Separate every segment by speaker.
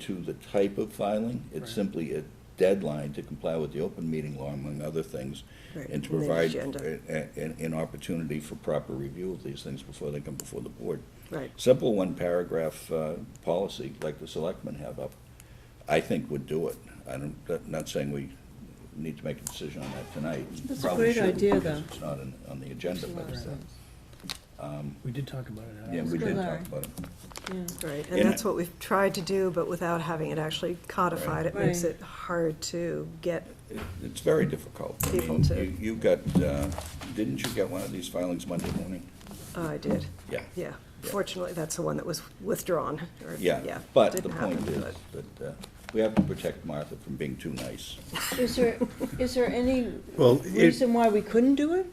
Speaker 1: to the type of filing. It's simply a deadline to comply with the open meeting law, among other things,
Speaker 2: Right,
Speaker 1: and to
Speaker 2: and the
Speaker 1: provide
Speaker 2: agenda.
Speaker 1: a- a- an, an opportunity for proper review of these things before they come before the board.
Speaker 2: Right.
Speaker 1: Simple one-paragraph uh, policy, like the selectmen have up, I think would do it. I don't, not- not saying we need to make a decision on that tonight.
Speaker 3: That's a
Speaker 1: Probably
Speaker 3: great
Speaker 1: shouldn't,
Speaker 3: idea,
Speaker 1: because
Speaker 3: though.
Speaker 1: It's not in- on the agenda, but,
Speaker 4: We did talk about it.
Speaker 1: yeah,
Speaker 4: Alex.
Speaker 1: we did
Speaker 3: Larry.
Speaker 1: talk about it.
Speaker 2: Right,
Speaker 1: And
Speaker 2: and that's what we've tried to do, but without having it actually codified, it makes
Speaker 3: Right.
Speaker 2: it hard to get,
Speaker 1: It- It's very difficult. I
Speaker 2: People
Speaker 1: mean,
Speaker 2: to-
Speaker 1: you- You got, uh, didn't you get one of these filings Monday morning?
Speaker 2: oh, I did,
Speaker 1: Yeah.
Speaker 2: yeah. Fortunately, that's the one that was withdrawn, or,
Speaker 1: Yeah,
Speaker 2: yeah.
Speaker 1: but the
Speaker 2: didn't
Speaker 1: point
Speaker 2: happen,
Speaker 1: is
Speaker 2: but-
Speaker 1: that uh, we have to protect Martha from being too nice.
Speaker 3: Is there, is there any
Speaker 5: Well, it,
Speaker 3: reason why we couldn't do it?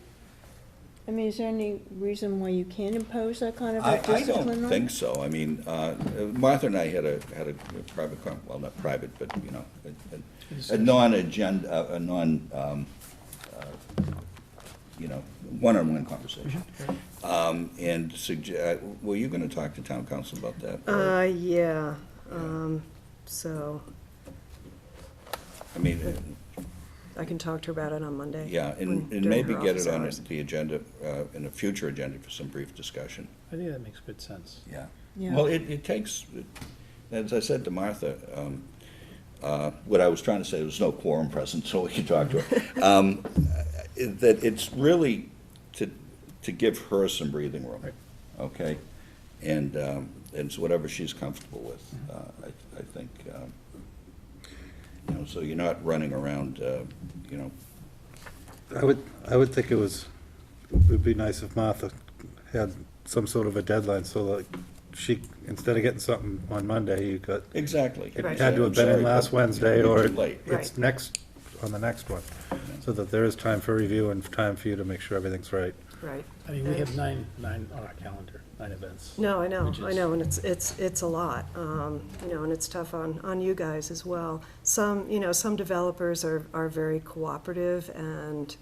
Speaker 3: I mean, is there any reason why you can't impose that kind of
Speaker 1: I,
Speaker 3: a
Speaker 1: I
Speaker 3: discipline on?
Speaker 1: don't think so. I mean, uh, Martha and I had a, had a private, con- well, not private, but, you know, a- a, a non-agenda, a non, um, uh, you know, one-on-one
Speaker 5: Mm-hmm.
Speaker 1: conversation. Um, and sugge, uh, were you gonna talk to town council about that? or-
Speaker 2: Uh, yeah, um, so
Speaker 1: I mean,
Speaker 2: I can talk to her about it on Monday.
Speaker 1: Yeah,
Speaker 2: when-
Speaker 1: and, and
Speaker 2: during
Speaker 1: maybe
Speaker 2: her
Speaker 1: get
Speaker 2: office
Speaker 1: it on
Speaker 2: hours.
Speaker 1: the agenda, uh, in a future agenda for some brief discussion.
Speaker 4: I think that makes good sense.
Speaker 1: Yeah.
Speaker 3: Yeah.
Speaker 1: Well, it, it takes, it- as I said to Martha, um, uh, what I was trying to say, there was no quorum present, so we could talk to her. Um, it- That it's really to, to give her some breathing room,
Speaker 4: Right.
Speaker 1: okay? And, um, and it's whatever she's comfortable with, uh, I, I think, um, you know, so you're not running around, uh, you know,
Speaker 5: I would, I would think it was, it would be nice if Martha had some sort of a deadline, so like, she, instead of getting something on Monday, you got,
Speaker 1: Exactly.
Speaker 5: it
Speaker 2: Right.
Speaker 5: had to have been in last Wednesday, or
Speaker 1: Too late.
Speaker 5: it's
Speaker 2: Right.
Speaker 5: next, on the next one, so that there is time for review and time for you to make sure everything's right.
Speaker 2: Right.
Speaker 4: I mean, we have nine, nine on our calendar, nine events.
Speaker 2: No, I know,
Speaker 4: which
Speaker 2: I
Speaker 4: is-
Speaker 2: know, and it's, it's, it's a lot, um, you know, and it's tough on, on you guys as well. Some, you know, some developers are, are very cooperative and,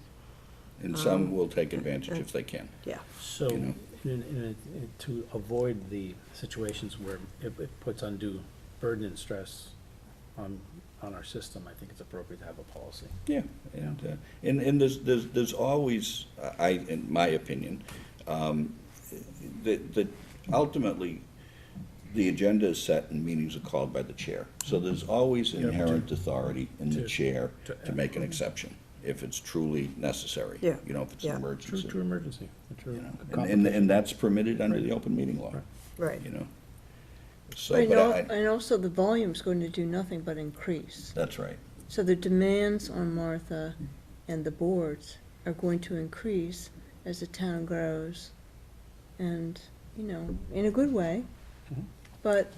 Speaker 1: And some
Speaker 2: Um,
Speaker 1: will take advantage if they can.
Speaker 2: yeah,
Speaker 4: So,
Speaker 1: You know.
Speaker 4: in, in, in- to avoid the situations where it, it puts undue burden and stress on, on our system, I think it's appropriate to have a policy.
Speaker 1: Yeah. And, uh, and, and there's, there's, there's always, I, in my opinion, um, that, that ultimately, the agenda is set and meetings are called by the chair. So there's always inherent authority in the
Speaker 4: to-
Speaker 1: chair
Speaker 4: to-
Speaker 1: to make an exception, if it's truly necessary.
Speaker 2: Yeah,
Speaker 1: You know, if it's
Speaker 2: yeah.
Speaker 1: an
Speaker 2: True,
Speaker 4: True,
Speaker 1: emergency.
Speaker 4: true emergency, a
Speaker 1: you
Speaker 4: true
Speaker 1: know. And,
Speaker 4: complication.
Speaker 1: and- and that's permitted under the open meeting law,
Speaker 2: right.
Speaker 1: you know. So,
Speaker 3: And
Speaker 1: but
Speaker 3: al-
Speaker 1: I,
Speaker 3: and also the volume's going to do nothing but increase.
Speaker 1: that's right.
Speaker 3: So the demands on Martha and the boards are going to increase as the town grows. And, you know, in a good way,
Speaker 1: Mm-hmm.
Speaker 4: Mhm.
Speaker 3: but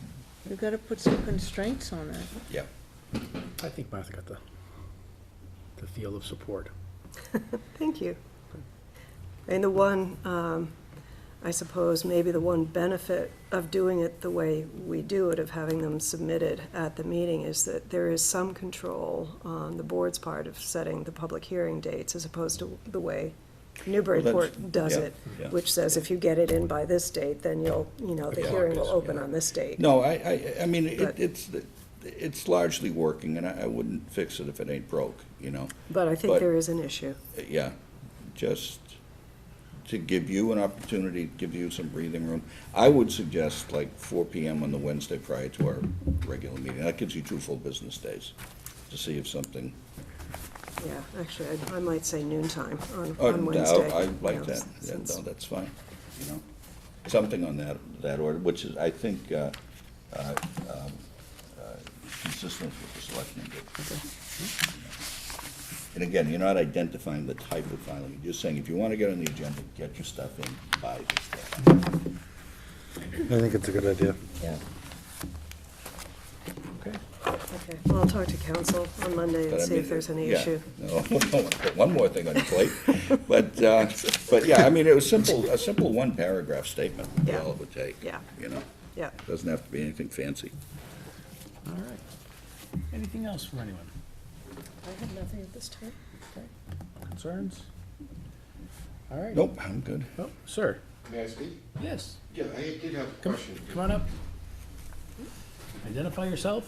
Speaker 3: we've got to put some constraints on it.
Speaker 1: Yeah.
Speaker 4: I think Martha got the, the feel of support.
Speaker 2: Thank you. And the one, um, I suppose, maybe the one benefit of doing it the way we do it, of having them submitted at the meeting, is that there is some control on the board's part of setting the public hearing dates as opposed to the way Newburyport does
Speaker 1: yeah,
Speaker 2: it,
Speaker 1: yeah.
Speaker 2: which says if you get it in by this date, then you'll, you know, the
Speaker 1: Yeah.
Speaker 2: hearing will open
Speaker 1: Yeah.
Speaker 2: on this date.
Speaker 1: No, I, I, I mean, it,
Speaker 2: But-
Speaker 1: it's, it's largely working, and I, I wouldn't fix it if it ain't broke, you know?
Speaker 2: But I think
Speaker 1: but-
Speaker 2: there is an issue.
Speaker 1: Yeah, just to give you an opportunity, give you some breathing room. I would suggest like four PM on the Wednesday prior to our regular meeting. That gives you two full business days to see if something,
Speaker 2: Yeah, actually, I I might say noon time on
Speaker 1: oh,
Speaker 2: on
Speaker 1: no,
Speaker 2: Wednesday.
Speaker 1: I
Speaker 2: you
Speaker 1: like
Speaker 2: know,
Speaker 1: that. Yeah,
Speaker 2: since-
Speaker 1: No, that's fine, you know? Something on that, that order, which is, I think, uh, uh, um, uh, consistent with the selectmen did. And again, you're not identifying the type of filing, you're just saying if you want to get on the agenda, get your stuff in by this day.
Speaker 5: I think it's a good idea.
Speaker 1: Yeah. Okay.
Speaker 2: Okay, well, I'll talk to council on Monday
Speaker 1: But
Speaker 2: and
Speaker 1: I
Speaker 2: see if
Speaker 1: mean,
Speaker 2: there's any
Speaker 1: yeah,
Speaker 2: issue.
Speaker 1: No, I don't wanna put one more thing on your plate, but, uh, but yeah, I mean, it was simple, a simple one paragraph statement,
Speaker 2: Yeah.
Speaker 1: all it would take.
Speaker 2: Yeah.
Speaker 1: You know,
Speaker 2: Yeah,
Speaker 1: doesn't have to be anything fancy.
Speaker 4: All right. Anything else from anyone?
Speaker 2: I have nothing at this time.
Speaker 4: Concerns? All right.
Speaker 1: Nope, I'm good.
Speaker 4: Oh, sir,
Speaker 6: May I speak?
Speaker 4: yes,
Speaker 6: Yeah, I did have a
Speaker 4: come,
Speaker 6: question.
Speaker 4: come on up. Identify yourself